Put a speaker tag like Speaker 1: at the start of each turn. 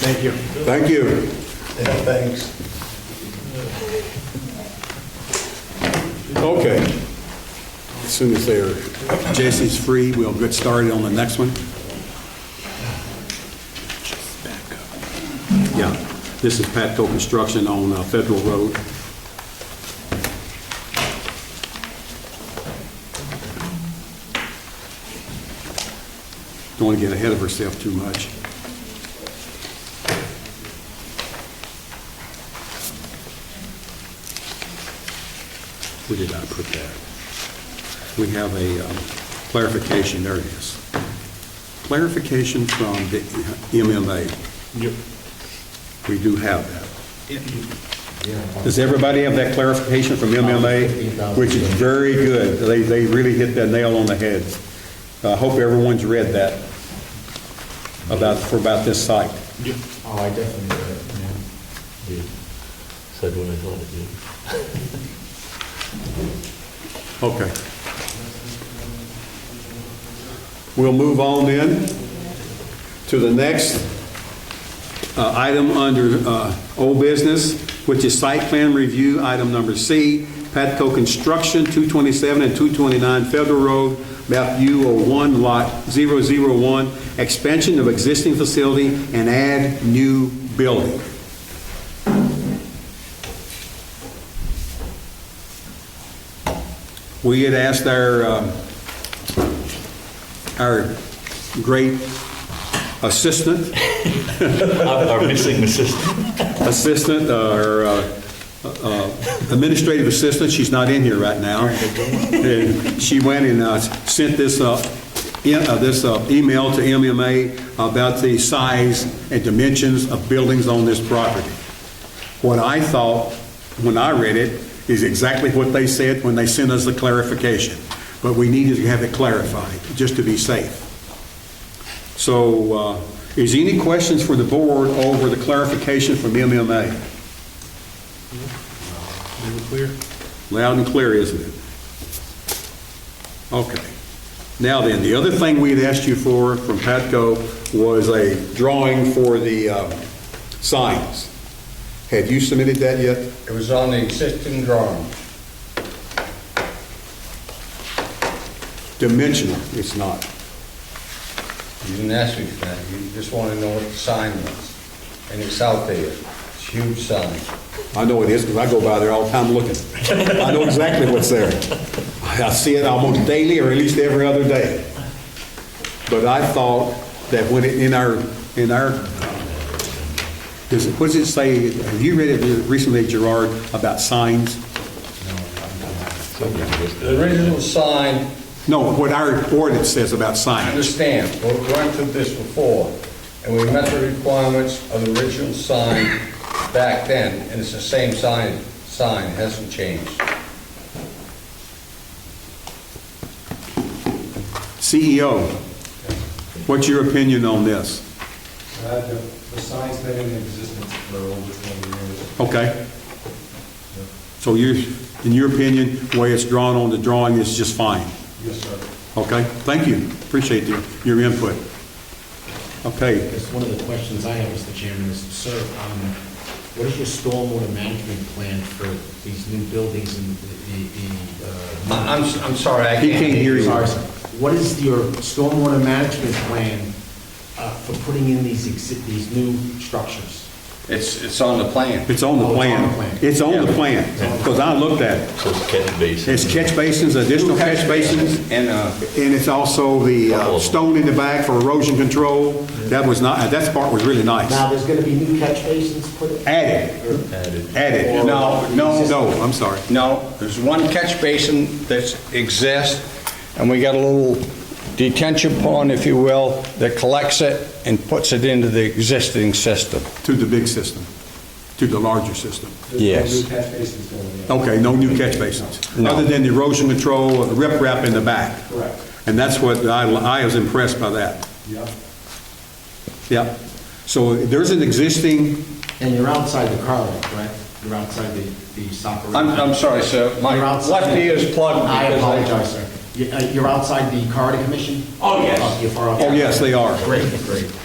Speaker 1: Thank you.
Speaker 2: Thank you.
Speaker 1: Yeah, thanks.
Speaker 2: Okay. As soon as they're, Jesse's free, we'll get started on the next one. Yeah, this is Patco Construction on uh, Federal Road. Don't want to get ahead of herself too much. Where did I put that? We have a um, clarification, there it is. Clarification from the MMA. Yep. We do have that. Does everybody have that clarification from MMA? Which is very good. They, they really hit that nail on the head. I hope everyone's read that about, for about this site.
Speaker 3: Oh, I definitely read it, yeah.
Speaker 4: You Said what I thought it did.
Speaker 2: Okay. We'll move on then to the next uh, item under uh, old business, which is site plan review, item number C, Patco Construction, 227 and 229 Federal Road, map U01, lot 001, expansion of existing facility and add new building. We had asked our, um, our great assistant,
Speaker 4: Our missing assistant.
Speaker 2: assistant, or uh, uh, administrative assistant, she's not in here right now. And She went and uh, sent this, uh, in- uh, this uh, email to MMA about the size and dimensions of buildings on this property. What I thought, when I read it, is exactly what they said when they sent us the clarification. But we needed to have it clarified, just to be safe. So, uh, is any questions for the board over the clarification from MMA? Loud and clear, isn't it? Okay. Now then, the other thing we had asked you for from Patco was a drawing for the uh, signs. Have you submitted that yet?
Speaker 3: It was on the existing drawing.
Speaker 2: Dimensional, it's not.
Speaker 3: You didn't ask me for that, you just want to know what the sign was. And it's out there, it's a huge sign.
Speaker 2: I know it is, because I go by there all the time looking. I know exactly what's there. I see it almost daily, or at least every other day. But I thought that when it, in our, in our, does it, what does it say, have you read it recently, Gerard, about signs?
Speaker 3: The original sign,
Speaker 2: No, what our ordinance says about
Speaker 3: I
Speaker 2: signs.
Speaker 3: understand, we went through this before, and we met the requirements of the original sign back then, and it's the same sign, sign, hasn't changed.
Speaker 2: CEO, E what's your opinion on this?
Speaker 5: Uh, The the sign's been in existence for over 20 years.
Speaker 2: Okay? So you, in your opinion, the way it's drawn on the drawing is just fine?
Speaker 5: Yes, sir.
Speaker 2: Okay, thank you. Appreciate your, your input. Okay,
Speaker 6: Because one of the questions I have, Mr. Chairman, is, sir, um, what is your stormwater management plan for these new buildings and the, the, the, uh,
Speaker 3: I- I'm, s- I'm sorry, I
Speaker 2: He
Speaker 3: can't
Speaker 2: can't
Speaker 3: hear
Speaker 2: hear
Speaker 3: you.
Speaker 2: you.
Speaker 6: sorry, sir. what is your stormwater management plan uh, for putting in these, exi- these new structures?
Speaker 3: It's, it's on the plan.
Speaker 2: it's on the
Speaker 6: Oh, it's
Speaker 2: plan.
Speaker 6: on the plan.
Speaker 2: It's on the plan, because I looked at it.
Speaker 4: So it's catch basin.
Speaker 2: It's catch basins, additional catch basins,
Speaker 3: And, uh,
Speaker 2: and it's also the uh, stone in the back for erosion control. That was not, that part was really nice.
Speaker 6: Now, there's gonna be new catch basins put in?
Speaker 2: Added,
Speaker 4: Added.
Speaker 2: added. No, no, no, I'm sorry.
Speaker 3: No, there's one catch basin that exists, and we got a little detention pond, if you will, that collects it and puts it into the existing system.
Speaker 2: To the big system, to the larger system.
Speaker 5: There's no
Speaker 3: Yes.
Speaker 5: new catch basins going in.
Speaker 2: Okay, no new catch basins?
Speaker 3: No.
Speaker 2: Other than the erosion control, the riprap in the back?
Speaker 5: Correct.
Speaker 2: And that's what, I, I was impressed by that.
Speaker 5: Yep.
Speaker 2: Yep. So there's an existing,
Speaker 6: And you're outside the car lot, correct? You're outside the, the soccer.
Speaker 3: I'm, I'm sorry, sir, my
Speaker 6: You're outside-
Speaker 3: left ear is plugged.
Speaker 6: I
Speaker 3: because
Speaker 6: apologize, sir. You- uh, You're outside the corridor commission?
Speaker 3: Oh, yes.
Speaker 6: Uh, you're far out.
Speaker 2: oh yes, they are.
Speaker 6: Great, great.